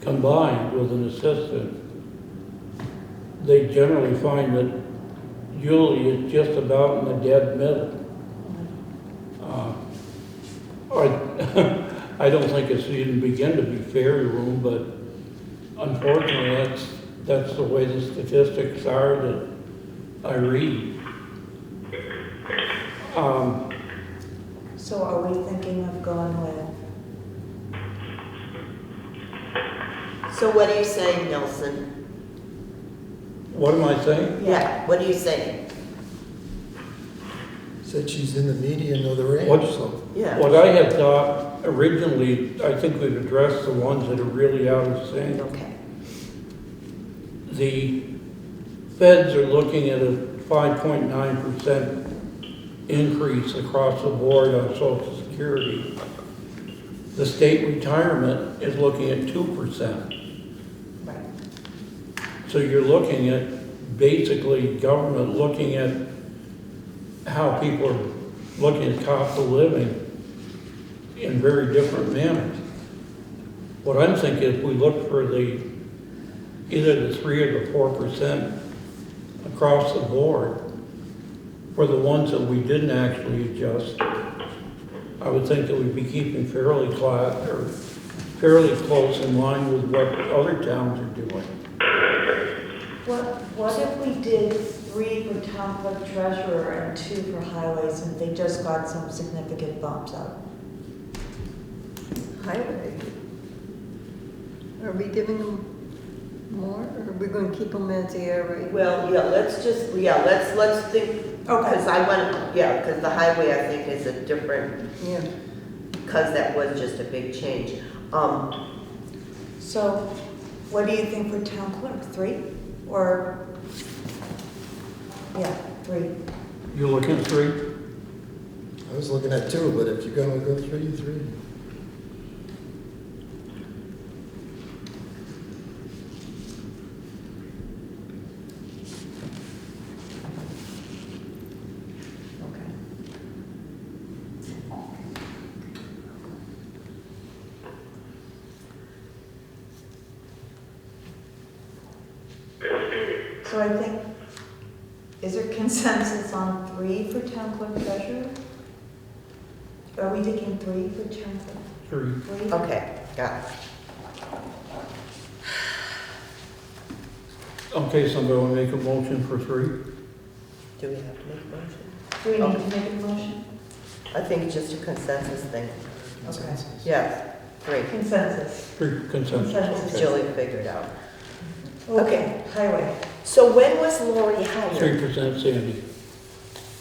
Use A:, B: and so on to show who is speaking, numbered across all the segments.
A: combined with an assistant, they generally find that Julie is just about in the dead middle. Uh, Or, I don't think it's even begin to be fair to them, but unfortunately, that's, that's the way the statistics are that I read. Um,
B: So are we thinking of going with?
C: So what are you saying, Nelson?
A: What am I saying?
C: Yeah, what are you saying?
D: Said she's in the median of the range,
A: What's-
D: so.
C: Yeah.
A: What I had thought originally, I think we've addressed the ones that are really out of sync.
C: Okay.
A: The feds are looking at a five point nine percent increase across the board on social security. The state retirement is looking at two percent.
B: Right.
A: So you're looking at, basically, government looking at how people are looking at cost of living in very different manners. What I'm thinking is we look for the, either the three or the four percent across the board for the ones that we didn't actually adjust. I would think that we'd be keeping fairly cla- or fairly close in line with what other towns are doing.
B: What, what if we did three for town clerk treasurer and two for highways and they just got some significant bumps up?
E: highway. Are we giving them more, or are we gonna keep them at the area?
C: Well, yeah, let's just, yeah, let's, let's think, because I want, yeah, because the highway, I think, is a different,
E: Yeah,
C: because that was just a big change. Um,
B: So what do you think for town clerk, three or? Yeah, three.
A: You're looking at three?
D: I was looking at two, but if you're gonna go three, three.
B: Okay. So I think, is there consensus on three for town clerk treasurer? Are we taking three for town clerk?
A: Three.
B: Three?
C: okay, got it.
A: Okay, somebody will make a motion for three?
C: Do we have to make a motion?
B: Do we need to make a motion?
C: I think it's just a consensus thing.
B: Okay.
C: Yes, three.
B: Consensus.
A: Three consensus.
B: Consensus.
C: Julie figured out.
B: Okay, highway.
C: So when was Lori hired?
A: Three percent Sandy.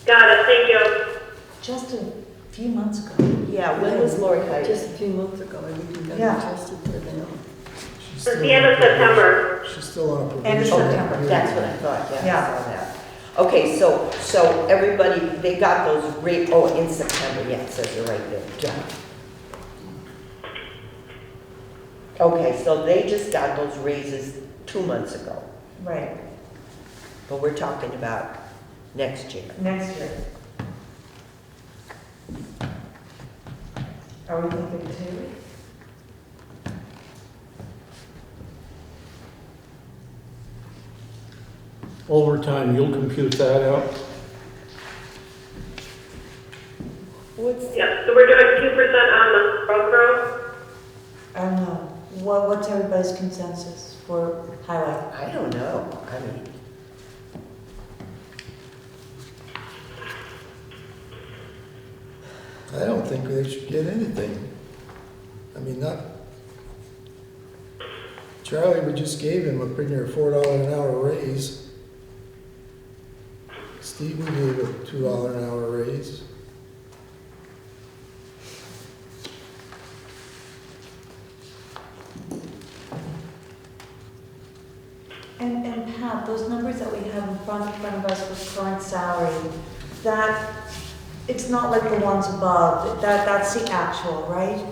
F: Got it, thank you.
B: Just a few months ago.
C: Yeah, when was Lori hired?
E: just a few months ago, I would do that,
B: Yeah.
E: adjusted for them.
D: She's
F: It's
D: still
F: the end
D: on
F: of September.
D: probation. She's still on a
B: End of
D: probation.
B: September,
D: Yeah.
C: Oh, That's what I thought, yeah,
B: Yeah.
C: I saw that. Okay, so, so everybody, they got those rate, oh, in September, yeah, it says it right there.
B: Yeah.
C: Okay, so they just got those raises two months ago,
B: Right,
C: but we're talking about next year.
B: next year. Are we thinking two?
A: Overtime, you'll compute that out?
C: What's,
F: Yep, so we're doing two percent on the Velcro.
B: I don't know. What, what's everybody's consensus for highway?
C: I don't know, I mean,
D: I don't think they should get anything. I mean, not. Charlie, we just gave him a pretty near four dollar an hour raise. Steve, we gave a two dollar an hour raise.
B: And, and Pat, those numbers that we have in front, in front of us for current salary, that, it's not like the ones above, that, that's the actual, right?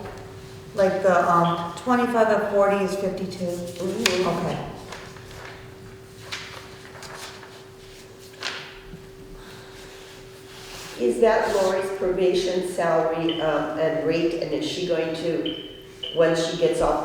B: Like the, um, twenty-five at forty is fifty-two? Okay.
C: is that Lori's probation salary, um, and rate, and is she going to, when she gets off